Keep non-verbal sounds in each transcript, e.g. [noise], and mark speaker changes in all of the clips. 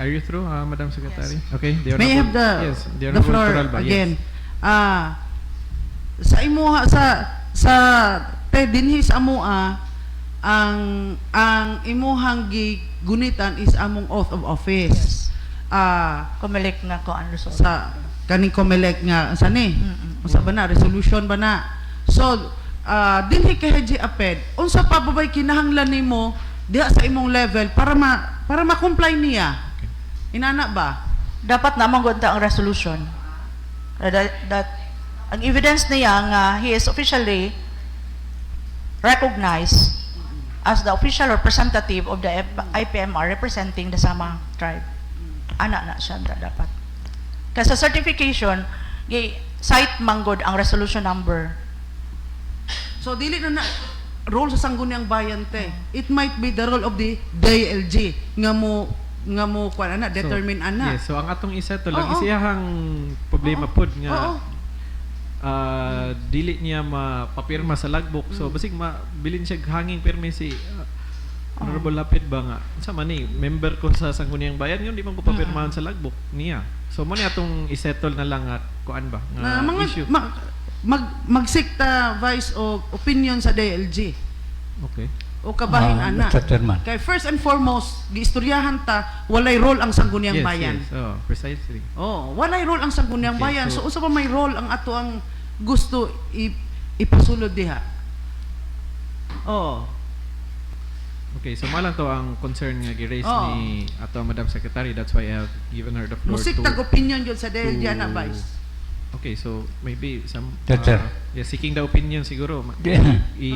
Speaker 1: Are you through, uh, Madam Secretary? Okay. The
Speaker 2: May I
Speaker 1: Honorable-
Speaker 2: have the,
Speaker 1: yes, the,
Speaker 2: the
Speaker 1: Honorable
Speaker 2: floor
Speaker 1: Toralba, yes.
Speaker 2: again. Ah, sa imuha sa sa te dinhi sa amoa ang ang imuhang gigunitan is among oath of office. Ah,
Speaker 3: Kumilik na ko ang Luzon.
Speaker 2: sa kaning COMELEC nga sa ni
Speaker 3: Mm-mm.
Speaker 2: unsa ba na resolution ba na so ah, dinhi kay Haji Aped unsa pa ba bay kinahanglan nimo diha sa imong level para ma para ma-comply niya inana ba
Speaker 3: Dapat na magunta ang resolution. Uh, That, that, ang evidence niya nga he is officially recognized as the official representative of the F- IPMR representing the Sama tribe. Ana na siya da- dapat. Kasi sa certification, gi site manggod ang resolution number.
Speaker 2: So dili na na role sa sangguniang bayan te. It might be the role of the DLG nga mo nga mo kwan ana determine ana.
Speaker 1: Yes, so ang atong isa to lang
Speaker 2: Oo.
Speaker 1: isiyahang problema pod nga
Speaker 2: Oo.
Speaker 1: ah, dili niya mapapirma sa logbook.
Speaker 2: Mm.
Speaker 1: So basig mabilin siya hanging pirmi si ah, Honorable Lapid ba nga. Sa man ni member ko sa Sangguniang Bayan yun di man ko papirmahan sa logbook niya. So mo ni atong isettle na lang at kuan ba nga
Speaker 2: Na mga
Speaker 1: issue.
Speaker 2: ma- mag magsikta vice o opinion sa DLG
Speaker 1: okay.
Speaker 2: o kabahin
Speaker 4: Ah,
Speaker 2: ana.
Speaker 4: Mr. Chairman.
Speaker 2: Kay first and foremost, giistoryahan ta walay role ang sangguniang
Speaker 1: yes,
Speaker 2: bayan.
Speaker 1: yes. Oh, precisely.
Speaker 2: Oh, walay role ang sangguniang
Speaker 1: Okay,
Speaker 2: bayan. So
Speaker 1: so-
Speaker 2: usa pa may role ang ato ang gusto ip- ipasulod diha. Oh.
Speaker 1: Okay, so malang to ang concern nga gi-raise
Speaker 2: Oo.
Speaker 1: ni ato Madam Secretary. That's why I have given her the floor to
Speaker 2: Musiktag opinion yun sa DLG ana
Speaker 1: to-
Speaker 2: vice.
Speaker 1: Okay, so maybe some uh,
Speaker 4: Yes, sir.
Speaker 1: yeah, seeking the opinion siguro. ma-
Speaker 4: Di-
Speaker 1: I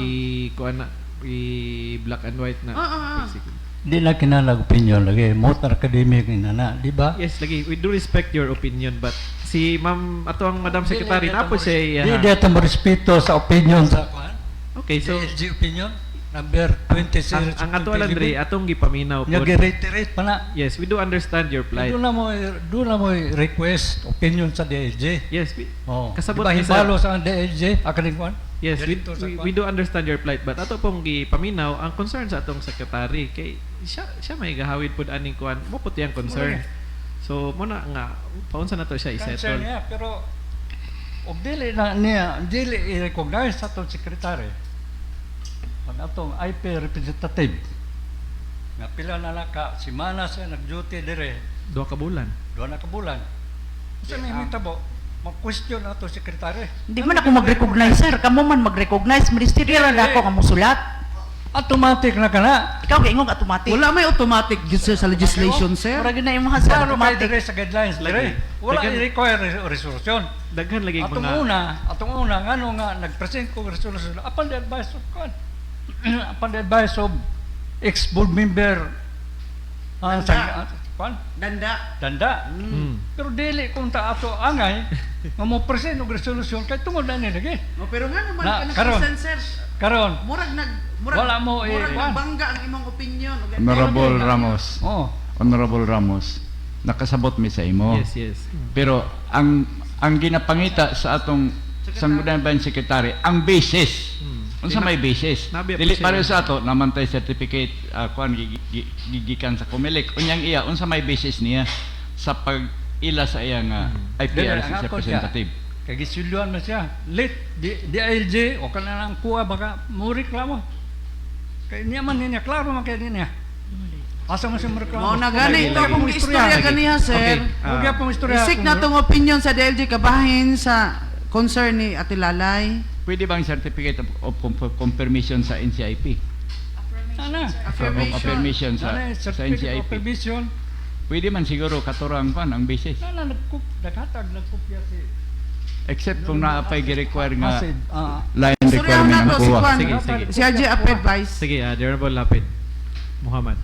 Speaker 1: kuan na i black and white na.
Speaker 2: Ah, ah, ah.
Speaker 1: basically.
Speaker 4: Di na kinalag opinion lagi. Motor academic na na, di ba?
Speaker 1: Yes, lagi we do respect your opinion but si Ma'am ato ang Madam Secretary na po siya. uh,
Speaker 4: Di
Speaker 1: iya, ha?
Speaker 4: di ito respeto sa opinion sa kwan.
Speaker 1: Okay, so
Speaker 4: DLG opinion number 26.
Speaker 1: ang, ang ato Landry atong gipaminaw po.
Speaker 4: Nag-reiterate pa na.
Speaker 1: Yes, we do understand your plight.
Speaker 4: Doon na mo doon na mo request opinion sa DLG.
Speaker 1: Yes, we
Speaker 4: Oh.
Speaker 1: Kasabot
Speaker 4: Kasabot diba,
Speaker 1: ni sir.
Speaker 4: hibalo sa ang DLG academic one.
Speaker 1: Yes, we,
Speaker 4: Director sa
Speaker 1: we,
Speaker 4: kwan.
Speaker 1: we do understand your plight but ato pong gipaminaw ang concern sa atong secretary kay siya siya may gahawid pud aning kuan mo puti ang concern. So mo na nga paunsa na to siya
Speaker 4: Concern
Speaker 1: i-settle.
Speaker 4: niya pero og dili na niya dili i-recognize sa atong secretary ang atong IP representative nga pila na naka si Mana siya nag-duty dire
Speaker 1: Duha ka bulan.
Speaker 4: duha na ka bulan sa may mitabo mag-question na atong secretary
Speaker 3: Hindi man ako mag-recognize, sir. Kamu man mag-recognize. Ministerial na ako nga musulat.
Speaker 4: automatic na kana
Speaker 3: Ikaw kay ingong automatic.
Speaker 2: Wala may automatic yun, sir, sa legislation, sir.
Speaker 3: Murag yun na imong sa
Speaker 4: Klaro kay
Speaker 3: automatic.
Speaker 4: dire sa guidelines dire
Speaker 1: Lagi.
Speaker 4: wala
Speaker 1: Lagi.
Speaker 4: i-require res- resolution
Speaker 1: Daghan lagi yung
Speaker 4: Atong
Speaker 1: mga
Speaker 4: una, atong una, ngano nga, nag-present ko resolution, upon the advice of God, [clears throat] upon the advice of ex-board member, ah, sa, ah, kwan,
Speaker 2: Danda.
Speaker 4: danda.
Speaker 1: Mm.
Speaker 4: Pero dili kung ta ato angay, nga mo present og resolution, kay tungod na ni lagi.
Speaker 2: No, Oh, pero nga naman,
Speaker 4: Na,
Speaker 2: ka
Speaker 4: karon.
Speaker 2: nag-present, sir.
Speaker 4: Karon,
Speaker 2: Murag nag... Murag,
Speaker 4: Wala mo, eh,
Speaker 2: Murag
Speaker 4: kwan.
Speaker 2: bangga ang imong opinion. o ganyan.
Speaker 5: Honorable Ramos,
Speaker 4: oh,
Speaker 5: Honorable Ramos, nakasabot mi sa imo.
Speaker 1: Yes, yes.
Speaker 5: Pero ang ang ginapangita sa atong Sangguniang Bayan Secretary, ang basis.
Speaker 1: Mm.
Speaker 5: Unsa may basis?
Speaker 1: Nabi-
Speaker 5: Dili
Speaker 1: siya.
Speaker 5: pareho sa ato namantay certificate uh, kuan gi- gi- gigikan sa Comelec. Unyang iya, unsa may basis niya sa pag ila sa iyang uh,
Speaker 1: Hmm.
Speaker 4: dili,
Speaker 5: IPRC
Speaker 4: ang ako siya.
Speaker 5: representative.
Speaker 4: Kay gisulyoan man siya, late, ya. di, oh, DILJ, o kanang kuha, baka mo reklamo. Kay niya man niya, klaro man kay niya. Asa man siya mo reklamo?
Speaker 2: Mao na gani,
Speaker 4: gitu.
Speaker 2: ito akong istorya ganiha, sir.
Speaker 1: Okay. Ah,
Speaker 4: Huwag yan pong istorya.
Speaker 2: Isik na tong opinion sa DLG kabahin sa concern ni Ate Lalay.
Speaker 5: Pwede bang certificate of, of conf- confirmation sa NCIP?
Speaker 4: Ano?
Speaker 5: Of
Speaker 4: Ano
Speaker 5: affirmation sa,
Speaker 4: yung
Speaker 5: sa
Speaker 4: certificate of
Speaker 5: NCIP.
Speaker 4: permission?
Speaker 5: Pwede man siguro katurang kuan ang basis.
Speaker 4: Ano nagkup, naghatag, nagkopya si...
Speaker 5: Except kung naapay gi-require nga
Speaker 4: Acid, ah,
Speaker 5: line
Speaker 2: Istoryahan
Speaker 5: requirement
Speaker 2: na
Speaker 5: na
Speaker 2: to si
Speaker 5: kuha.
Speaker 2: Kwan.
Speaker 1: Sige, sige.
Speaker 2: Si Haji Aped, vice.
Speaker 1: Sige, ah, the Honorable Lapid. Muhammad.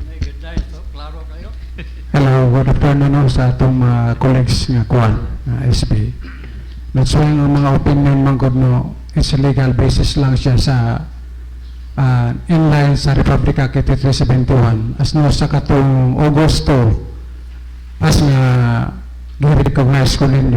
Speaker 4: ano yung guidelines, no? klaro kayo.
Speaker 6: Hello, good afternoon ho sa atong mga colleagues nga kuan, uh, SB. That's why ang mga opinion mangod no is a legal basis lang siya sa uh, inline sa Republic Act 8371 as no sa katong Agosto as nga do you recognize ko ninyo?